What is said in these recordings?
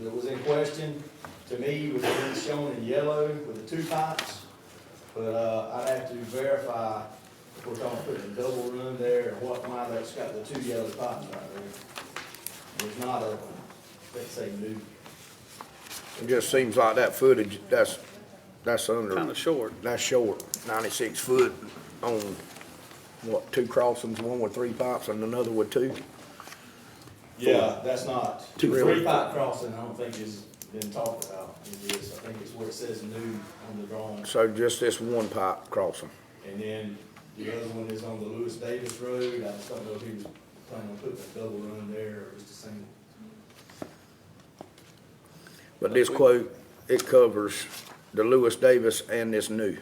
that was in question, to me, was being shown in yellow with the two pipes. But, uh, I'd have to verify if we're talking putting a double run there, or what, why that's got the two yellow pipes right there. It's not a, let's say, new, It just seems like that footage, that's, that's under. Kinda short. That's short, ninety-six foot on, what, two crossings, one with three pipes and another with two? yeah, that's not. Two really? Three pipe crossing, I don't think has been talked about, it is, I think it's where it says new on the drawing. So just this one pipe crossing. And then the other one is on the Lewis Davis Road, I just don't know if he was planning on putting a double run there or just a single. But this quote, it covers the Lewis Davis and this new.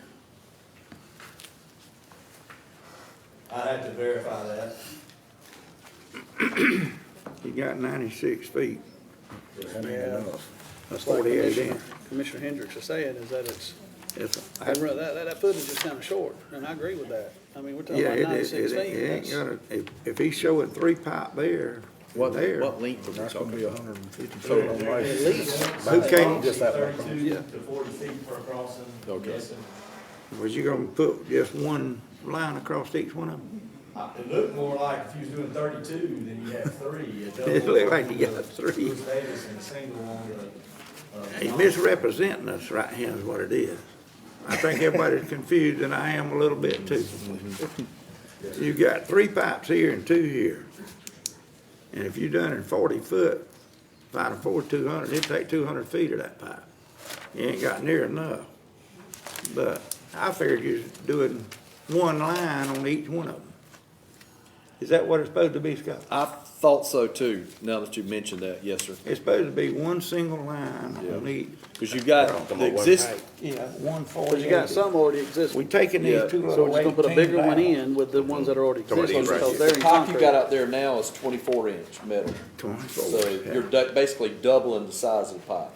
I'd have to verify that. You got ninety-six feet, That ain't enough. that's Like forty-eight Commissioner- inch. Commissioner Hendricks is saying is that it's, It's- that, that, that footage is kinda short, and I agree with that. I mean, we're talking Yeah, about it, it, ninety-six it it ain't feet. that's- gonna, if, if he's showing three pipe there, What, there. what length are we That's gonna talking? be a hundred and fifty foot on At way. least. Who came- Just that one. Thirty-two to forty feet per crossing, I'm Okay. guessing. Was you gonna put just one line across each one of them? Uh, It looked more like if you was doing thirty-two, then you had three, a double. It looked like you on the got three. Lewis uh, Davis and a single on the. uh, He's Knox. misrepresenting us right here is what it is. I think everybody's confused, and I am a little bit too. You got three pipes here and two here. And if you done it forty foot, five to four, two hundred, it'd take two hundred feet of that pipe. You ain't got near enough. But I figured you're doing one line on each one of them. Is that what it's supposed to be, Scott? I thought so too, now that you mentioned that, yes, sir. It's supposed to be one single line on Yeah. each. Cause you've got the exist, Yeah, one forty. But you got some already existing. We taking Yeah, these two So little we're just gonna put a bigger one in with the ones that are already Somebody existing, right here. because they're the in pipe you got concrete. out there now is twenty-four inch metal. Twenty-four. So you're du- basically doubling the size of the pipe.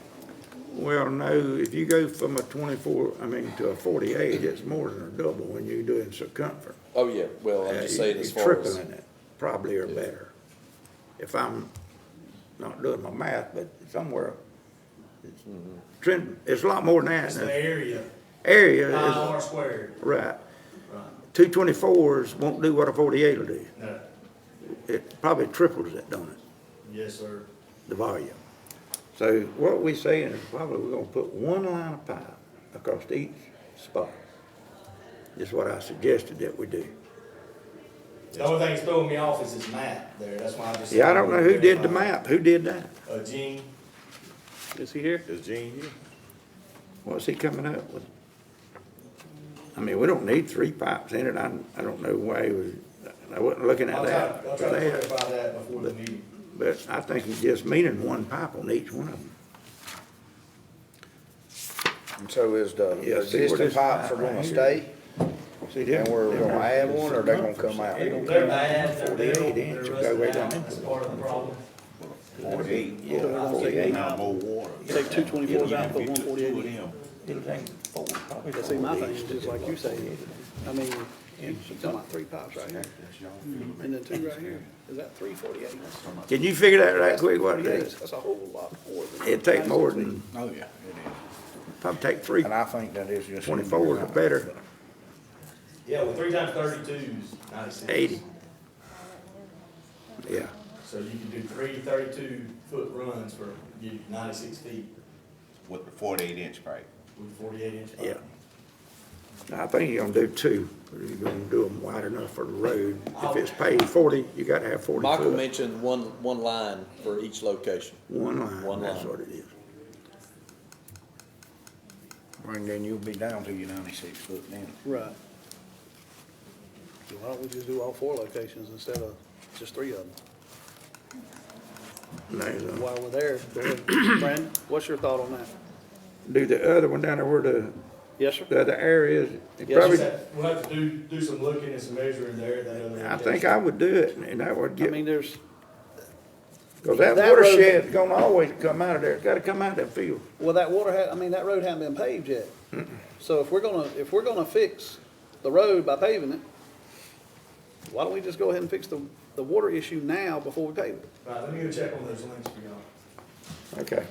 Well, no, if you go from a twenty-four, I mean, to a forty-eight, it's more than a double when you're doing circumference. Oh, yeah, well, I'm Uh, just saying you- as you're far as, Tripling it, probably or better. If I'm not doing my math, but somewhere, it's Mm-hmm. trend, it's a lot more than that. It's and the area, the Area I is, R squared, right, right, two twenty-fours won't do what a forty-eight will do. no, It probably triples it, don't it? yes, sir. the volume. So what we saying is probably we're gonna put one line of pipe across each spot. Is what I suggested that we do. The only thing that's throwing me off is his map there, that's why I just. Yeah, I don't know who did the map, who did that? Uh, Gene, Is he here? What's he coming up with? I mean, we don't need three pipes in it, I, I don't know why he was, I wasn't looking at I'll try, that. I'll try to clarify that before the meeting. But I think he's just meaning one pipe on each one of them. And so is the Yeah, see where existing this pipes are pipe right gonna here. stay? See, And we're they're- gonna add one, or they're gonna come out? They're gonna They're come out bad, they're built, 48 they're inch, go way rusted out, down into that's it. part of the problem. Forty-eight. Yeah, forty-eight. Take two twenty-fours out, put one forty-eight in. It'll take four, probably That's see, my four thing days is to just do like it. you say, I mean, you talking about three pipes right here, and then two right here, is that three forty-eight? Can you figure that right quick what it is? That's a whole lot more than. It'd take more than, Oh, yeah, it is. probably take three, And I think that is just. twenty-fours or better, Yeah, well, three times thirty-two is ninety-six. eighty. Yeah, So you can do three thirty-two foot runs for you ninety-six feet With the forty-eight inch pipe. with forty-eight inch. pipe. yeah. I think you're gonna do two, you're gonna do them wide enough for the road. If it's paved forty, you gotta have forty Michael foot, mentioned one, one line for each location. one line, one that's line. what it is. And then you'll be down to your ninety-six foot then. Right. So why don't we just do all four locations instead of just three of them? And there's a- While we're there, go ahead. Brandon, what's your thought on that? Do the other one down there where the, Yes, sir? the other area is, it Yes, probably, We'll have to do, do some looking and some measuring there at that other. I think I would do it, and that would I get, mean, there's, cause that that road- watershed's gonna always come out of there, it's gotta come out of that field. well, that water had, I mean, that road hadn't been paved yet. So if we're gonna, if we're gonna fix the road by paving it, why don't we just go ahead and fix the, the water issue now before we pave it? Right, let me go check on those links for y'all. Okay.